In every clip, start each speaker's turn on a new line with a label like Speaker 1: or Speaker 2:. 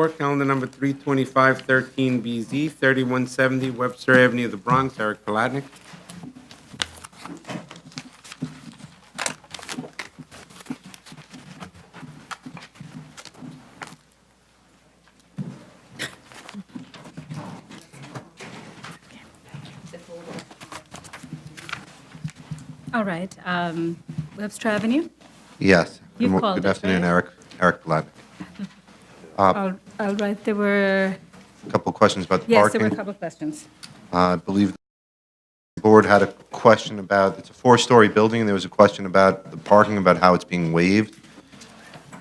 Speaker 1: Court, calendar number 32513BZ, 3170 Webster Avenue, the Bronx. Eric Palatnik.
Speaker 2: All right, um, Webster Avenue.
Speaker 3: Yes.
Speaker 2: You
Speaker 3: Good mo-
Speaker 2: called
Speaker 3: Good
Speaker 2: it,
Speaker 3: afternoon,
Speaker 2: right?
Speaker 3: Eric. Eric Palatnik.
Speaker 2: All all right, there were,
Speaker 3: A Couple of questions about the
Speaker 2: yes, there
Speaker 3: parking.
Speaker 2: were a couple of questions.
Speaker 3: Uh, I believe the board had a question about, it's a four-story building, and there was a question about the parking, about how it's being waived,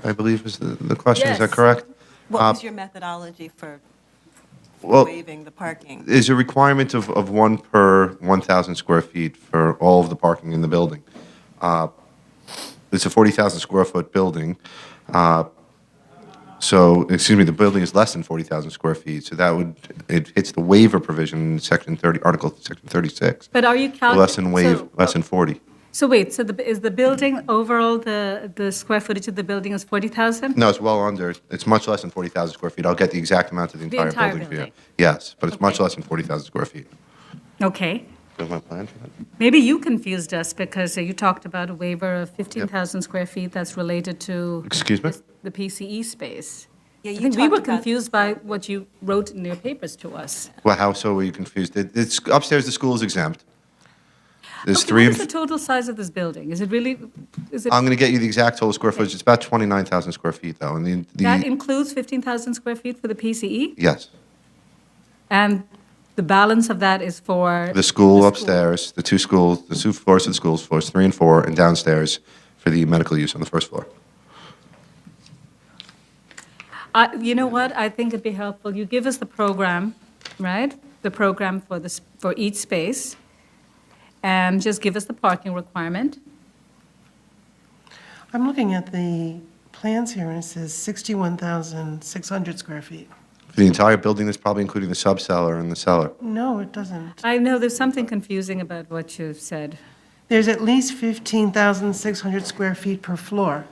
Speaker 3: I believe was the the question. Is that
Speaker 4: Yes.
Speaker 3: correct?
Speaker 4: What
Speaker 3: Uh,
Speaker 4: was your methodology for
Speaker 3: Well,
Speaker 4: waiving the parking?
Speaker 3: is a requirement of, of one per 1,000 square feet for all of the parking in the building. Uh, It's a 40,000 square foot building, uh, so, excuse me, the building is less than 40,000 square feet, so that would, it hits the waiver provision in section 30, article section 36,
Speaker 2: But are you counting?
Speaker 3: less than waive, less than 40.
Speaker 2: So wait, so the, is the building, overall, the, the square footage of the building is 40,000?
Speaker 3: No, it's well under, it's much less than 40,000 square feet, I'll get the exact amount of the entire
Speaker 2: entire
Speaker 3: building for you.
Speaker 2: building.
Speaker 3: Yes, but it's much
Speaker 2: Okay.
Speaker 3: less than 40,000 square feet.
Speaker 2: Okay,
Speaker 3: Do you have my plan for that?
Speaker 2: maybe you confused us because uh, you talked about a waiver of 15,000 square feet that's related to
Speaker 3: Excuse me?
Speaker 2: the PCE space.
Speaker 4: Yeah,
Speaker 2: I
Speaker 4: you
Speaker 2: think we were
Speaker 4: talked about-
Speaker 2: confused by what you wrote in your papers to us.
Speaker 3: Well, how so were you confused? It- It's upstairs, the school is exempt. There's
Speaker 2: Okay,
Speaker 3: three,
Speaker 2: What is
Speaker 3: and
Speaker 2: the
Speaker 3: f-
Speaker 2: total size of this building? Is it really, is it,
Speaker 3: I'm going to get you the exact total square footage. It's about 29,000 square feet, though, and the-
Speaker 2: that
Speaker 3: the,
Speaker 2: includes 15,000 square feet for the PCE?
Speaker 3: yes.
Speaker 2: And the balance of that is for?
Speaker 3: The school upstairs, the two schools, the two floors of the schools, floors three and four, and downstairs for the medical use on the first floor.
Speaker 2: I- You know what, I think it'd be helpful, you give us the program, right? The program for this, for each space, and just give us the parking requirement.
Speaker 5: I'm looking at the plans here, and it says 61,600 square feet.
Speaker 3: For the entire building, that's probably including the sub-cellar and the cellar.
Speaker 5: No, it doesn't.
Speaker 2: I know there's something confusing about what you said.
Speaker 5: There's at least 15,600 square feet per floor.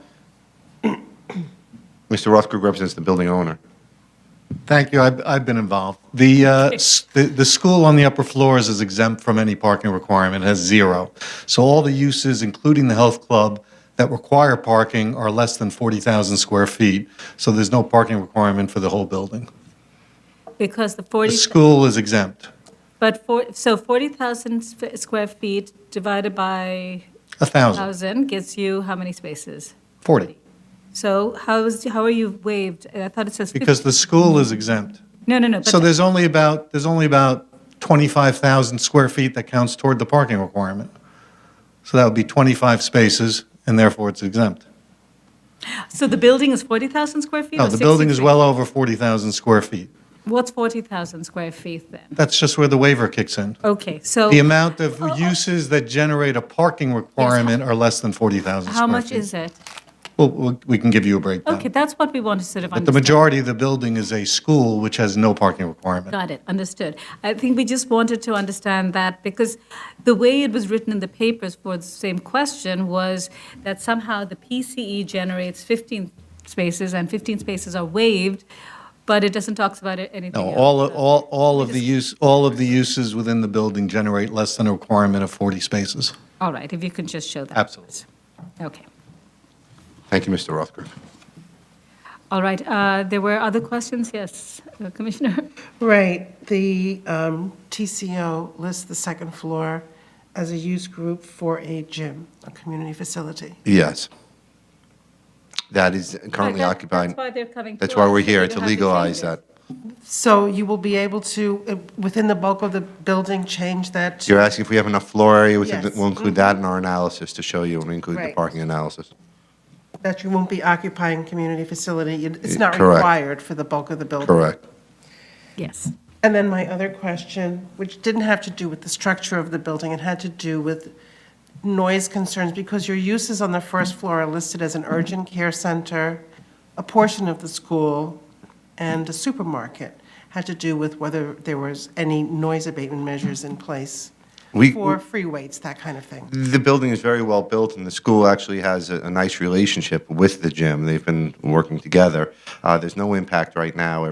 Speaker 3: Mr. Rothkrug represents the building owner.
Speaker 6: Thank you. I've, I've been involved. The, uh, s- the, the school on the upper floors is exempt from any parking requirement, has zero. So all the uses, including the health club, that require parking are less than 40,000 square feet. So there's no parking requirement for the whole building.
Speaker 2: Because the
Speaker 6: The
Speaker 2: 40,
Speaker 6: school is exempt,
Speaker 2: but for, so 40,000 sp- square feet divided by
Speaker 6: 1,000,
Speaker 2: 1,000 gets you how many spaces?
Speaker 6: 40,
Speaker 2: So how is, how are you waived? I thought it says 50.
Speaker 6: because the school is exempt.
Speaker 2: No, no, no,
Speaker 6: So
Speaker 2: but
Speaker 6: there's only about, there's only about 25,000 square feet that counts toward the parking requirement. So that would be 25 spaces, and therefore it's exempt.
Speaker 2: So the building is 40,000 square feet?
Speaker 6: No,
Speaker 2: or
Speaker 6: the building is
Speaker 2: 60?
Speaker 6: well over 40,000 square feet.
Speaker 2: What's 40,000 square feet then?
Speaker 6: That's just where the waiver kicks in.
Speaker 2: Okay, so
Speaker 6: The amount of
Speaker 2: Oh,
Speaker 6: uses that generate a parking requirement are less than 40,000 square feet.
Speaker 2: how much is it?
Speaker 6: Well, we- we can give you a breakdown.
Speaker 2: Okay, that's what we want to sort of
Speaker 6: But the
Speaker 2: understand.
Speaker 6: majority of the building is a school, which has no parking requirement.
Speaker 2: Got it, understood. I think we just wanted to understand that because the way it was written in the papers for the same question was that somehow the PCE generates 15 spaces and 15 spaces are waived, but it doesn't talk about it- anything
Speaker 6: No,
Speaker 2: else.
Speaker 6: all, all, all of the use, all of the uses within the building generate less than a requirement of 40 spaces.
Speaker 2: All right, if you can just show that. to
Speaker 6: Absolutely.
Speaker 2: us. Okay.
Speaker 3: Thank you, Mr. Rothkrug.
Speaker 2: All right, uh, there were other questions? Yes, uh, Commissioner?
Speaker 5: Right, the um, TCO lists the second floor as a use group for a gym, a community facility.
Speaker 3: Yes. That is currently
Speaker 2: That-
Speaker 3: occupied.
Speaker 2: That's why they're coming to
Speaker 3: That's why
Speaker 2: us,
Speaker 3: we're
Speaker 2: so we
Speaker 3: here,
Speaker 2: don't
Speaker 3: to
Speaker 2: have change
Speaker 3: legalize
Speaker 2: it.
Speaker 3: that.
Speaker 5: So you will be able to, uh, within the bulk of the building, change that to
Speaker 3: You're asking if we have enough floor area, we can-
Speaker 5: Yes.
Speaker 3: we'll include that in our analysis to show you, and we include the
Speaker 5: Right.
Speaker 3: parking analysis.
Speaker 5: that you won't be occupying community facility. It- It's
Speaker 3: Eh,
Speaker 5: not
Speaker 3: correct.
Speaker 5: required for the bulk of the building.
Speaker 3: Correct.
Speaker 2: Yes.
Speaker 5: And then my other question, which didn't have to do with the structure of the building, it had to do with noise concerns, because your uses on the first floor are listed as an urgent care center, a portion of the school, and a supermarket, had to do with whether there was any noise abatement measures in place
Speaker 3: We-
Speaker 5: for free weights, that kind of thing.
Speaker 3: The building is very well built, and the school actually has a, a nice relationship with the gym. They've been working together. Uh, there's no impact right now.